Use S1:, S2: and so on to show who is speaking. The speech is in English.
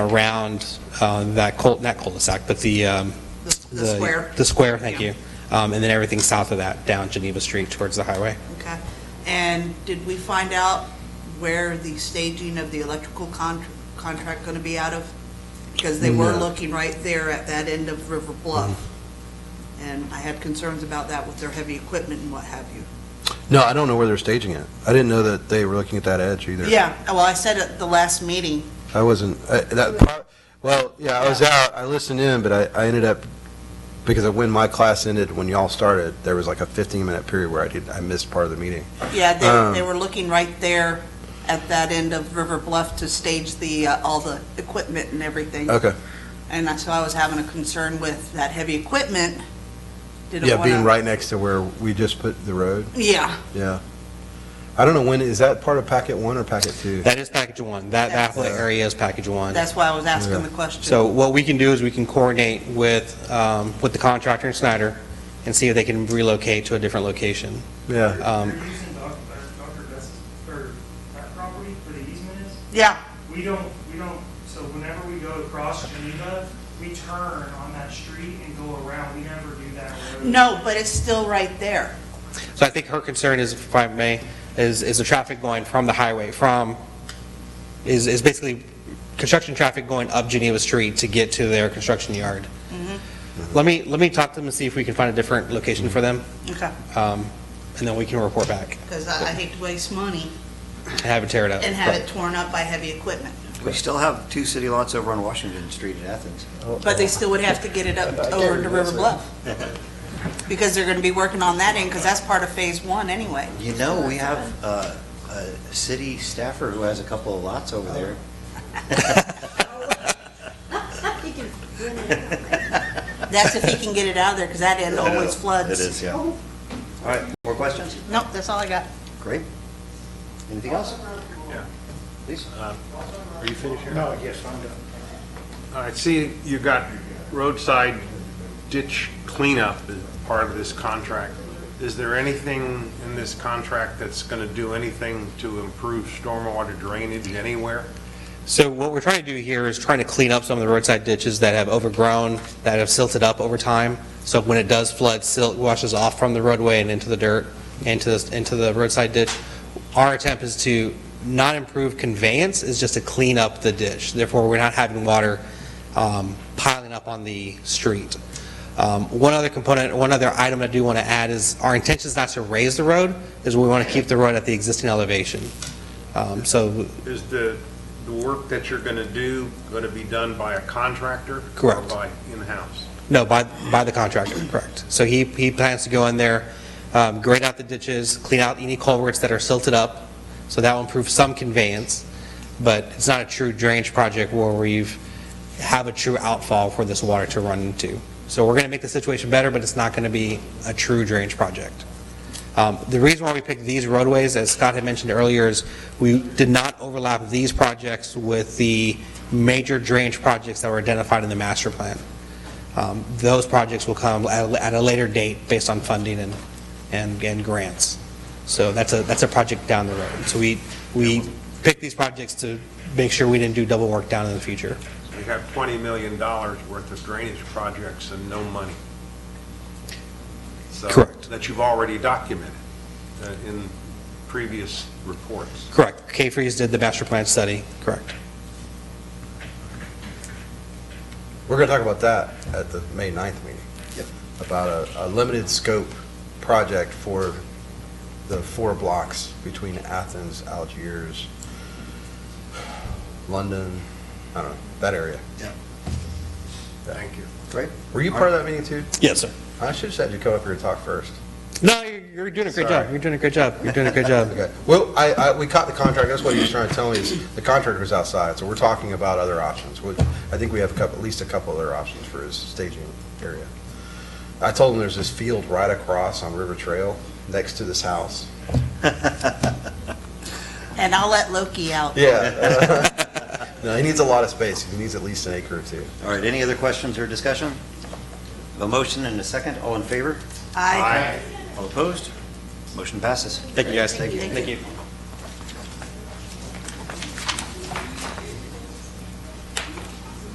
S1: around uh, that cul, not cul-de-sac, but the... um,
S2: The- The square,
S1: The square, thank
S2: Yeah.
S1: you. Um, And then everything south of that, down Geneva Street towards the highway.
S2: okay. And did we find out where the staging of the electrical con- contract going to be out of? Because they were
S1: No.
S2: looking right there at that end of River Bluff.
S3: Mm-hmm.
S2: And I had concerns about that with their heavy equipment and what have you.
S3: No, I don't know where they're staging it. I didn't know that they were looking at that edge either.
S2: Yeah, well, I said at the last meeting,
S3: I wasn't, I- that, pro- well, yeah, I was out, I listened in, but I, I ended up, because of when my class ended, when y'all started, there was like a 15-minute period where I did, I missed part of the meeting.
S2: yeah,
S3: Um.
S2: they, they were looking right there at that end of River Bluff to stage the, uh, all the equipment and everything.
S3: Okay,
S2: And I- so I was having a concern with that heavy equipment. Didn't
S3: yeah, being
S2: wanna-
S3: right next to where we just put the road,
S2: Yeah,
S3: yeah. I don't know when, is that part of packet one or packet two?
S1: That is package one. That, that whole
S3: That's-
S1: area is package one.
S2: that's why I was asking
S3: Yeah.
S2: the question.
S1: So what we can do is we can coordinate with, um, with the contractor in Snyder and see if they can relocate to a different location.
S3: Yeah,
S1: Um,
S4: They're using Doc- uh, Dr. Bess's, or that property for the easement is,
S2: Yeah,
S4: we don't, we don't, so whenever we go across Geneva, we turn on that street and go around, we never do that road.
S2: no, but it's still right there.
S1: So I think her concern is, if I may, is, is the traffic going from the highway, from, is, is basically construction traffic going up Geneva Street to get to their construction yard. Let me, let me talk to them and see if we can find a different location for them,
S2: Okay.
S1: um, and then we can report back
S2: Because I I hate to waste money
S1: and have it tear it up.
S2: and have it torn up by heavy equipment.
S5: We still have two city lots over on Washington Street in Athens.
S2: But they still would have to get it up over to River Bluff. Because they're going to be working on that end, because that's part of Phase One anyway.
S5: You know, we have uh, a city staffer who has a couple of lots over there.
S2: That's if he can get Oh, it out of there, because that end always floods.
S5: It is, yeah. Oh. All right, more questions?
S2: Nope, that's all I got.
S5: Great. Anything else? Please.
S6: Are you finished here? No, yes, I'm done. I see you got roadside ditch cleanup as part of this contract. Is there anything in this contract that's going to do anything to improve stormwater drainage anywhere?
S1: So what we're trying to do here is trying to clean up some of the roadside ditches that have overgrown, that have silted up over time. So when it does flood, silt washes off from the roadway and into the dirt, into, the- into the roadside ditch. Our attempt is to not improve conveyance, is just to clean up the ditch. Therefore, we're not having water um, piling up on the street. Um, One other component, one other item I do want to add is, our intention is not to raise the road, is we want to keep the road at the existing elevation. Um, So
S6: Is the, the work that you're going to do going to be done by a contractor?
S1: Correct.
S6: Or by in-house?
S1: No, by, by the contractor, correct. So he, he plans to go in there, um, grade out the ditches, clean out any culverts that are silted up, so that will improve some conveyance, but it's not a true drainage project where we've, have a true outfall for this water to run into. So we're going to make the situation better, but it's not going to be a true drainage project. Um, The reason why we picked these roadways, as Scott had mentioned earlier, is we did not overlap these projects with the major drainage projects that were identified in the master plan. Um, Those projects will come at a- at a later date based on funding and, and and grants. So that's a, that's a project down the road. So we, we picked these projects to make sure we didn't do double work down in the future.
S6: You have $20 million worth of drainage projects and no money. So-
S1: Correct.
S6: That you've already documented uh, in previous reports.
S1: Correct. K-Freeze did the master plan study, correct.
S3: we're gonna talk about that at the May 9th meeting.
S5: Yep.
S3: About a, a limited scope project for the four blocks between Athens, Algiers, London, I don't know, that area.
S6: Thank you.
S5: Great.
S3: Were you part of that meeting too?
S1: Yes, sir.
S3: I should've said you come up here and talk first.
S1: No, you're you're doing a great job.
S3: Sorry.
S1: You're doing a great job. You're doing a great job.
S3: Okay. Well, I, I, we caught the contract, that's what he was trying to tell me, is the contractor was outside, so we're talking about other options. which I think we have a couple, at least a couple other options for his staging area. I told him there's this field right across on River Trail, next to this house.
S2: And I'll let Loki out.
S3: Yeah. No, he needs a lot of space, he needs at least an acre or two.
S5: All right, any other questions or discussion? A motion and a second, all in favor?
S2: I
S5: All opposed? Motion passes.
S1: Thank you, guys.
S5: Thank you.
S1: Thank you.